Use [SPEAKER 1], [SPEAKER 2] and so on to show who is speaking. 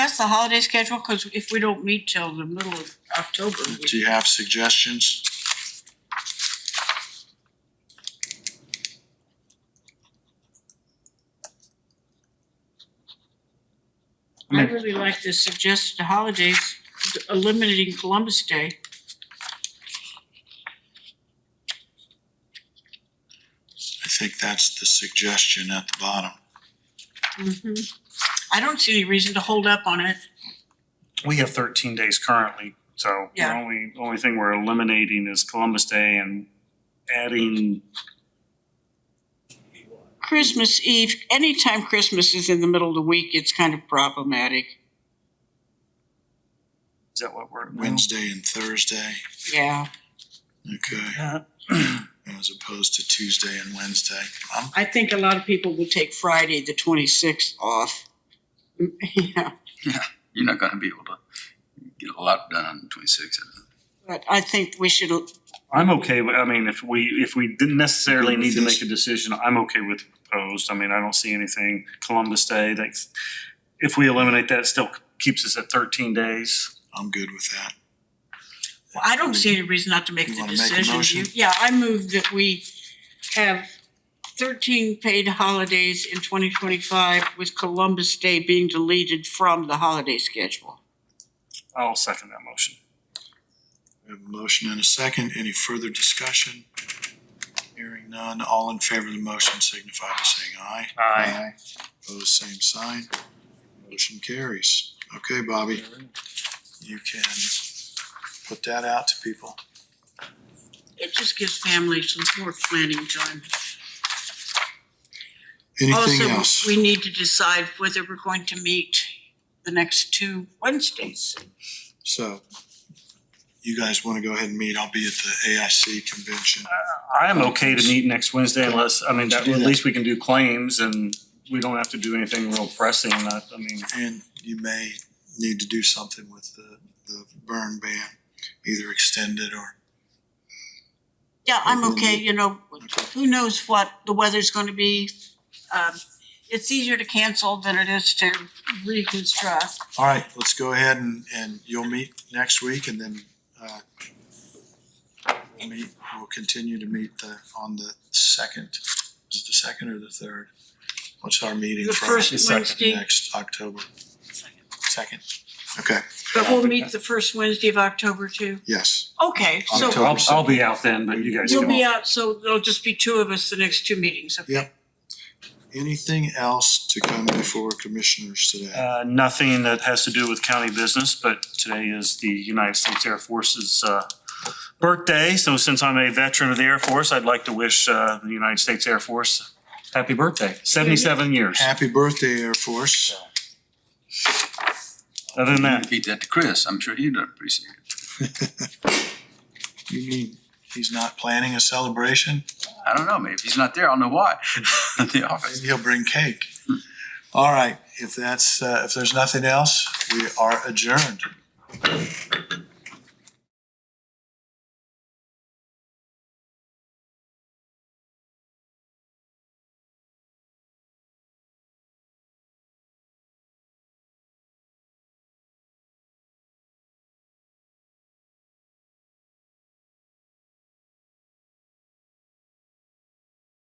[SPEAKER 1] That's the holiday schedule, cause if we don't meet till the middle of October, we-
[SPEAKER 2] Do you have suggestions?
[SPEAKER 1] I really like the suggested holidays, eliminating Columbus Day.
[SPEAKER 2] I think that's the suggestion at the bottom.
[SPEAKER 1] Mhm. I don't see any reason to hold up on it.
[SPEAKER 3] We have thirteen days currently, so the
[SPEAKER 1] Yeah.
[SPEAKER 3] only, only thing we're eliminating is Columbus Day and adding,
[SPEAKER 1] Christmas Eve, anytime Christmas is in the middle of the week, it's kind of problematic.
[SPEAKER 3] is that what we're? no.
[SPEAKER 2] Wednesday and Thursday,
[SPEAKER 1] Yeah,
[SPEAKER 2] okay,
[SPEAKER 3] Uh,
[SPEAKER 2] as opposed to Tuesday and Wednesday. Um,
[SPEAKER 1] I think a lot of people will take Friday, the twenty-sixth off. Mm, Yeah,
[SPEAKER 4] You're not gonna be able to get a lot done on twenty-six.
[SPEAKER 1] but I think we should,
[SPEAKER 3] I'm okay, with I mean, if we, if we didn't necessarily
[SPEAKER 2] Okay with
[SPEAKER 3] need to
[SPEAKER 2] this?
[SPEAKER 3] make a decision, I'm okay with proposed, I mean, I don't see anything Columbus Day, that's, if we eliminate that, it still keeps us at thirteen days.
[SPEAKER 2] I'm good with that.
[SPEAKER 1] Well, I don't see any reason not to make
[SPEAKER 2] You
[SPEAKER 1] the
[SPEAKER 2] wanna make a
[SPEAKER 1] decision.
[SPEAKER 2] motion?
[SPEAKER 1] You- Yeah, I move that we have thirteen paid holidays in twenty twenty-five with Columbus Day being deleted from the holiday schedule.
[SPEAKER 3] I'll second that motion.
[SPEAKER 2] We have a motion and a second. Any further discussion? Hearing none, all in favor of the motion signify by saying aye.
[SPEAKER 3] Aye.
[SPEAKER 2] Opposed, same sign. Motion carries. Okay, Bobby, you can put that out to people.
[SPEAKER 1] It just gives families some more planning time.
[SPEAKER 2] Anything else?
[SPEAKER 1] Also, we need to decide whether we're going to meet the next two Wednesdays.
[SPEAKER 2] So you guys want to go ahead and meet? I'll be at the AIC convention.
[SPEAKER 3] I'm okay to meet next Wednesday unless, I mean,
[SPEAKER 2] Let's
[SPEAKER 3] that,
[SPEAKER 2] do
[SPEAKER 3] at
[SPEAKER 2] that.
[SPEAKER 3] least we can do claims and we don't have to do anything real pressing, I, I mean,
[SPEAKER 2] And you may need to do something with the, the burn ban, either extended or.
[SPEAKER 1] Yeah, I'm
[SPEAKER 2] Mhm.
[SPEAKER 1] okay, you know, who knows what the weather's gonna be. Um, it's easier to cancel than it is to reconstruct.
[SPEAKER 2] All right, let's go ahead and, and you'll meet next week and then, uh, we'll meet, we'll continue to meet the, on the second, is it the second or the third? What's our meeting?
[SPEAKER 1] The
[SPEAKER 2] for
[SPEAKER 1] first
[SPEAKER 2] the
[SPEAKER 1] Wednesday.
[SPEAKER 2] Next October, second. Okay,
[SPEAKER 1] But we'll meet the first Wednesday of October too.
[SPEAKER 2] yes.
[SPEAKER 1] Okay, so
[SPEAKER 2] October.
[SPEAKER 3] I'll, I'll be out then, but you guys
[SPEAKER 1] you'll be
[SPEAKER 3] can
[SPEAKER 1] out, so there'll just be two of us the next two meetings. okay?
[SPEAKER 2] Yep. Anything else to come before commissioners today?
[SPEAKER 3] Uh, nothing that has to do with county business, but today is the United States Air Force's, uh, birthday, so since I'm a veteran of the Air Force, I'd like to wish, uh, the United States Air Force happy birthday, seventy-seven years.
[SPEAKER 2] Happy birthday, Air Force.
[SPEAKER 3] Other than that,
[SPEAKER 4] Communicate that to Chris, I'm sure he'd appreciate it.
[SPEAKER 2] You mean, he's not planning a celebration?
[SPEAKER 4] I don't know, maybe if he's not there, I'll know why, at the office.
[SPEAKER 2] Maybe he'll bring cake. All right, if that's, uh, if there's nothing else, we are adjourned.